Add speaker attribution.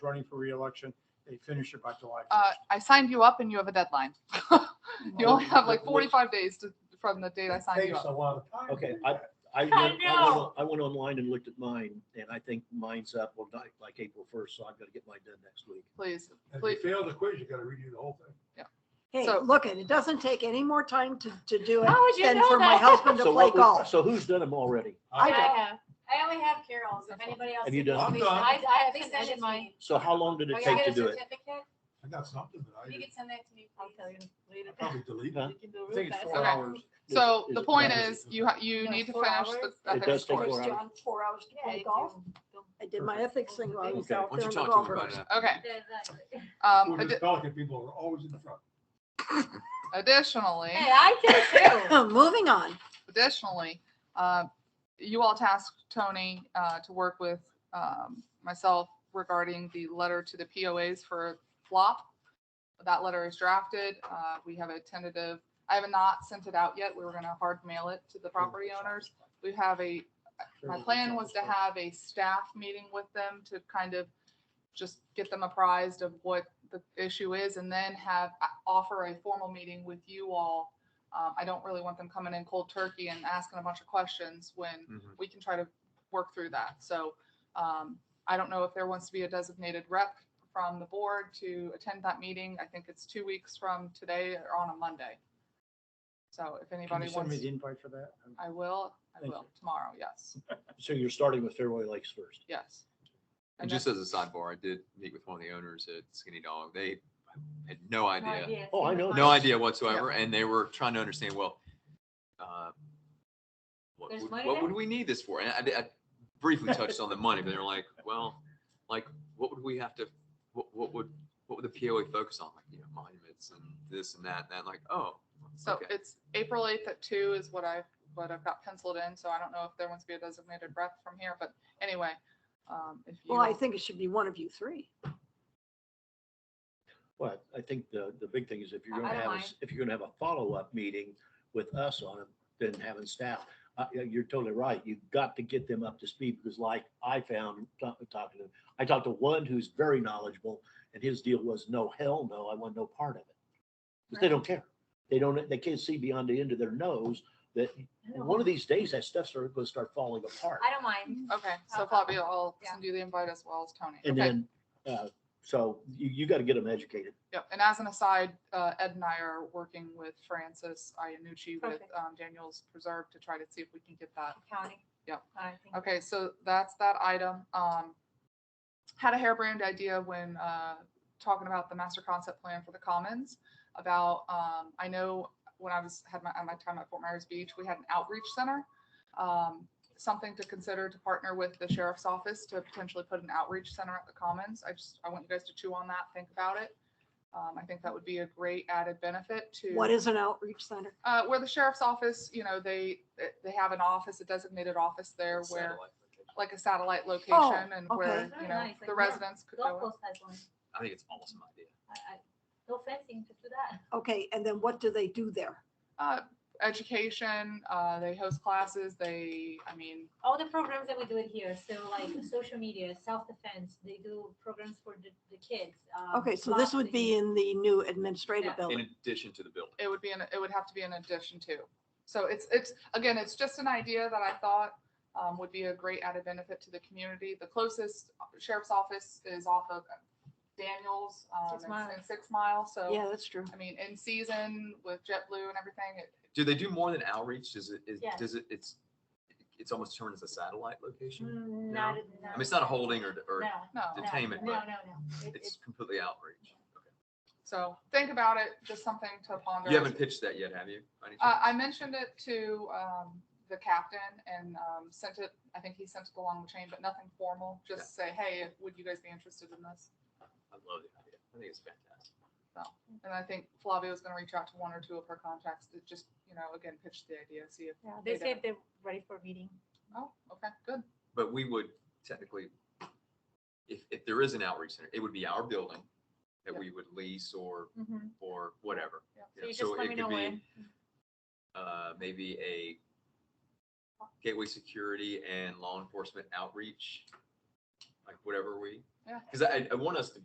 Speaker 1: running for reelection, they finish it by July.
Speaker 2: Uh, I signed you up and you have a deadline. You only have like
Speaker 3: Oh, Which-
Speaker 2: forty-five days to, from the date I signed you
Speaker 1: Takes a
Speaker 2: up.
Speaker 1: lot of time. to
Speaker 3: Okay,
Speaker 1: do
Speaker 3: I,
Speaker 1: that.
Speaker 3: I went,
Speaker 4: I
Speaker 3: I went on-
Speaker 4: know.
Speaker 3: I went online and looked at mine, and I think mine's up on like, like April first, so I've got to get mine done next week.
Speaker 2: Please,
Speaker 1: If
Speaker 2: please.
Speaker 1: you fail the quiz, you gotta redo the whole thing.
Speaker 5: Hey,
Speaker 2: So-
Speaker 5: look, it it doesn't take any more time to, to do it
Speaker 4: How would you
Speaker 5: than
Speaker 4: know
Speaker 5: for my
Speaker 4: that?
Speaker 5: husband to
Speaker 3: So
Speaker 5: play
Speaker 3: what was-
Speaker 5: golf.
Speaker 3: So who's done them already?
Speaker 5: I
Speaker 4: I
Speaker 5: don't.
Speaker 4: have. I only have Carol's. If anybody else.
Speaker 3: Have you
Speaker 4: did
Speaker 3: done
Speaker 4: this,
Speaker 1: it? I'm done.
Speaker 4: I, I have
Speaker 6: They
Speaker 4: sent
Speaker 6: sent it
Speaker 4: it to
Speaker 6: mine.
Speaker 4: me.
Speaker 3: So how long did
Speaker 4: Oh,
Speaker 3: it
Speaker 4: you
Speaker 3: take
Speaker 4: got
Speaker 3: to
Speaker 4: a
Speaker 3: do it?
Speaker 4: certificate?
Speaker 1: I got something, but I
Speaker 4: You
Speaker 1: didn't-
Speaker 4: can send that to me.
Speaker 6: I'll tell you later.
Speaker 1: I probably deleted
Speaker 3: Huh?
Speaker 1: it.
Speaker 6: You can do
Speaker 1: I
Speaker 6: it real
Speaker 1: think it's
Speaker 6: fast.
Speaker 1: four
Speaker 2: Okay.
Speaker 1: hours.
Speaker 3: Is-
Speaker 2: So
Speaker 3: is
Speaker 2: the
Speaker 3: it
Speaker 2: point
Speaker 3: done?
Speaker 2: is, you, ha- you
Speaker 6: No,
Speaker 2: need to
Speaker 6: four
Speaker 2: finish
Speaker 6: hours.
Speaker 2: the
Speaker 6: It
Speaker 2: ethics
Speaker 3: does take
Speaker 2: course.
Speaker 3: four
Speaker 5: First John, four hours to
Speaker 6: Yeah,
Speaker 5: play
Speaker 6: you
Speaker 5: golf.
Speaker 6: do.
Speaker 5: I did my ethics thing while I was
Speaker 3: Okay.
Speaker 5: out
Speaker 7: Why
Speaker 5: there
Speaker 7: don't
Speaker 5: on
Speaker 7: you
Speaker 5: the
Speaker 7: talk to him
Speaker 5: golfers.
Speaker 7: about that?
Speaker 2: Okay,
Speaker 4: Yeah, exactly.
Speaker 2: um,
Speaker 1: We're
Speaker 2: addi-
Speaker 1: just Pelican people are always in front.
Speaker 2: additionally.
Speaker 4: Hey, I did too.
Speaker 5: Moving on.
Speaker 2: Additionally, uh, you all tasked Tony uh, to work with um, myself regarding the letter to the POAs for flop. That letter is drafted. Uh, We have a tentative, I have not sent it out yet. We were going to hard mail it to the property owners. We have a, my plan was to have a staff meeting with them to kind of just get them apprised of what the issue is and then have, uh, offer a formal meeting with you all. Um, I don't really want them coming in cold turkey and asking a bunch of questions when
Speaker 1: Mm-hmm.
Speaker 7: Mhm.
Speaker 2: we can try to work through that. So, um, I don't know if there wants to be a designated rep from the board to attend that meeting. I think it's two weeks from today or on a Monday. So if
Speaker 1: Can
Speaker 2: anybody
Speaker 1: you send me
Speaker 2: wants,
Speaker 1: the invite for that?
Speaker 2: I will, I
Speaker 1: Thank
Speaker 2: will
Speaker 1: you.
Speaker 2: tomorrow. Yes,
Speaker 3: So you're starting with Fairway Lakes first.
Speaker 2: yes.
Speaker 7: And
Speaker 2: then-
Speaker 7: just as a sidebar, I did meet with one of the owners at Skinny Dog. They had no idea,
Speaker 3: Oh, I know
Speaker 7: no idea whatsoever, and they were trying to understand, well, uh, what
Speaker 4: There's
Speaker 7: would,
Speaker 4: money
Speaker 7: what
Speaker 4: there?
Speaker 7: would we need this for? And I, I briefly touched on the money, but they were like, well, like, what would we have to, what, what would, what would the POA focus on? Like, you know, monuments and this and that, and that, like, oh.
Speaker 2: So
Speaker 7: okay.
Speaker 2: it's April eighth at two is what I, what I've got penciled in, so I don't know if there wants to be a designated rep from here, but anyway. um, if
Speaker 5: Well, I
Speaker 2: you-
Speaker 5: think it should be one of you three.
Speaker 3: But I think the, the big thing is if you're
Speaker 4: I- I
Speaker 3: gonna
Speaker 4: don't
Speaker 3: have, a
Speaker 4: mind.
Speaker 3: s- if you're gonna have a follow-up meeting with us on it, then having staff. Uh, yeah, you're totally right. You've got to get them up to speed because like I found, ta- talking to, I talked to one who's very knowledgeable and his deal was no, hell no, I want no part of it. Because they don't care. They don't, they can't see beyond the end of their nose that one of these days that stuff's are gonna start falling apart.
Speaker 4: I don't mind.
Speaker 2: Okay, so
Speaker 4: Uh,
Speaker 2: Flavia, I'll
Speaker 4: yeah.
Speaker 2: send you the invite as well as Tony.
Speaker 3: And
Speaker 2: Okay,
Speaker 3: then, uh, so you, you got to get them educated.
Speaker 2: yep, and as an aside, uh, Ed and I are working with Francis Ianucci with
Speaker 4: Perfect.
Speaker 2: um, Daniels Preserve to try to see if we can get that
Speaker 4: County.
Speaker 2: Yep.
Speaker 4: I think-
Speaker 2: Okay, so that's that item. Um, had a harebrained idea when, uh, talking about the master concept plan for the commons about, um, I know when I was, had my, at my time at Fort Myers Beach, we had an outreach center. Um, something to consider to partner with the sheriff's office to potentially put an outreach center at the commons. I just, I want you guys to chew on that, think about it. Um, I think that would be a great added benefit to.
Speaker 5: What is an outreach center?
Speaker 2: Uh, where the sheriff's office, you know, they, they have an office, a designated office there where
Speaker 7: Satellite location.
Speaker 2: like a satellite location and
Speaker 5: Oh,
Speaker 2: where,
Speaker 5: okay.
Speaker 4: Very
Speaker 2: you know,
Speaker 4: nice, like,
Speaker 2: the
Speaker 4: yeah,
Speaker 2: residents could
Speaker 4: Golf
Speaker 2: go. in.
Speaker 4: course has one.
Speaker 7: I think it's an awesome idea.
Speaker 4: I, I, no fencing, just do that.
Speaker 5: Okay, and then what do they do there?
Speaker 2: Uh, education, uh, they host classes, they, I mean,
Speaker 4: all the programs that we do it here, so like social media, self-defense, they do programs for the, the kids. um,
Speaker 5: Okay, so this would be
Speaker 4: boxing.
Speaker 5: in the new administrative
Speaker 4: Yeah.
Speaker 5: building.
Speaker 7: In addition to the building.
Speaker 2: it would be, an it would have to be an addition to. So it's, it's, again, it's just an idea that I thought, um, would be a great added benefit to the community. The closest sheriff's office is off of Daniels, um,
Speaker 4: Six
Speaker 2: and
Speaker 4: Mile.
Speaker 2: and Six Mile, so,
Speaker 5: Yeah, that's true.
Speaker 2: I mean, in season with JetBlue and everything, it,
Speaker 7: Do they do more than outreach? Does it, is,
Speaker 4: Yes.
Speaker 7: does it, it's, it's almost turned as a satellite location?
Speaker 4: Mm, Not,
Speaker 7: I mean, it's not a holding or, or
Speaker 4: No,
Speaker 2: no.
Speaker 7: detainment,
Speaker 4: no, no,
Speaker 7: but
Speaker 4: no. It-
Speaker 7: it's
Speaker 4: It's,
Speaker 7: completely outreach. Okay.
Speaker 2: So think about it, just something to ponder.
Speaker 7: You
Speaker 2: as
Speaker 7: haven't pitched that yet, have you? by any
Speaker 2: Uh,
Speaker 7: chance?
Speaker 2: I mentioned it to, um, the captain and, um, sent it, I think he sent it along the chain, but nothing formal. Just say, hey, would you guys be interested in this?
Speaker 7: I love the idea. I think it's fantastic.
Speaker 2: And I think Flavio is gonna reach out to one or two of her contacts to just, you know, again, pitch the idea, see if,
Speaker 4: yeah, they
Speaker 2: they
Speaker 4: say
Speaker 2: don't.
Speaker 4: if they're ready for a meeting.
Speaker 2: oh, okay, good.
Speaker 7: But we would technically, if, if there is an outreach center, it would be our building that
Speaker 2: Yeah.
Speaker 7: we would lease or,
Speaker 4: Mhm.
Speaker 7: or whatever.
Speaker 2: Yeah.
Speaker 4: So
Speaker 7: you know,
Speaker 4: you just
Speaker 7: it
Speaker 4: let me
Speaker 7: could
Speaker 4: know
Speaker 7: be,
Speaker 4: when.
Speaker 7: Uh, maybe a gateway security and law enforcement outreach, like whatever we
Speaker 2: Yeah.
Speaker 7: Because I, I want us to